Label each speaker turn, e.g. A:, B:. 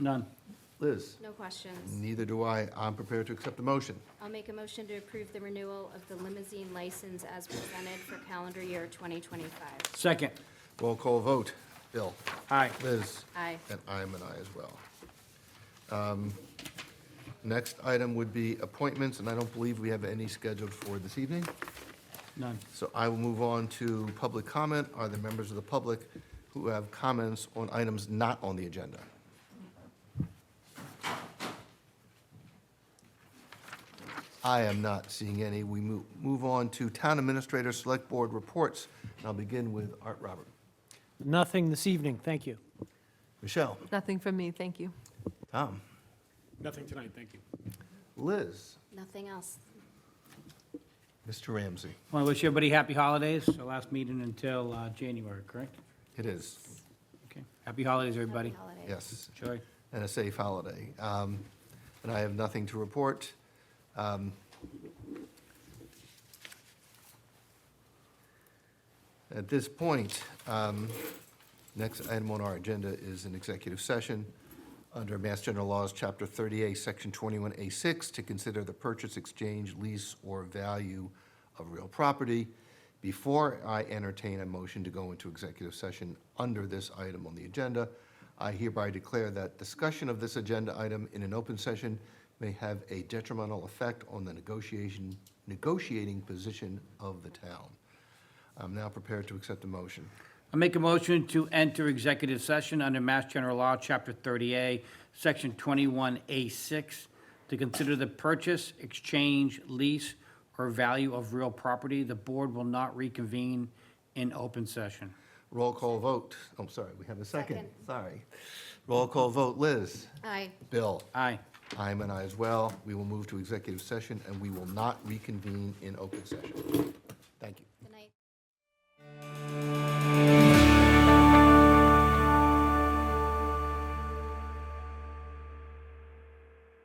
A: None. Liz?
B: No questions.
C: Neither do I. I'm prepared to accept the motion.
B: I'll make a motion to approve the renewal of the limousine license as presented for calendar year 2025.
A: Second.
C: Roll call vote. Bill?
A: Aye.
C: Liz?
B: Aye.
C: And I'm an aye as well. Um, Next item would be appointments, and I don't believe we have any scheduled for this evening.
A: None.
C: So I will move on to public comment. Are there members of the public who have comments on items not on the agenda? I am not seeing any. We move, move on to Town Administrator Select Board Reports, and I'll begin with Art Robert.
D: Nothing this evening, thank you.
C: Michelle,
E: Nothing from me, thank you.
C: Tom,
F: Nothing tonight, thank you.
C: Liz,
B: Nothing else.
C: Mr. Ramsey.
A: Want to wish everybody happy holidays. Our last meeting until uh, January, correct?
C: It is,
A: Okay. Happy holidays, everybody.
B: Happy holidays.
C: yes.
A: Enjoy.
C: and a safe holiday. Um, And I have nothing to report. Um, At this point, um, next item on our agenda is an executive session under Mass General Laws, Chapter 38, Section 21A6, to consider the purchase, exchange, lease, or value of real property. Before I entertain a motion to go into executive session under this item on the agenda, I hereby declare that discussion of this agenda item in an open session may have a detrimental effect on the negotiation, negotiating position of the town. I'm now prepared to accept the motion.
A: I make a motion to enter executive session under Mass General Law, Chapter 30A, Section 21A6, to consider the purchase, exchange, lease, or value of real property. The board will not reconvene in open session.
C: Roll call vote. Oh, I'm sorry, we have a second.
B: Second.
C: Sorry. Roll call vote, Liz.
B: Aye.
C: Bill.
A: Aye.
C: I'm an I as well. We will move to executive session, and we will not reconvene in open session. Thank you.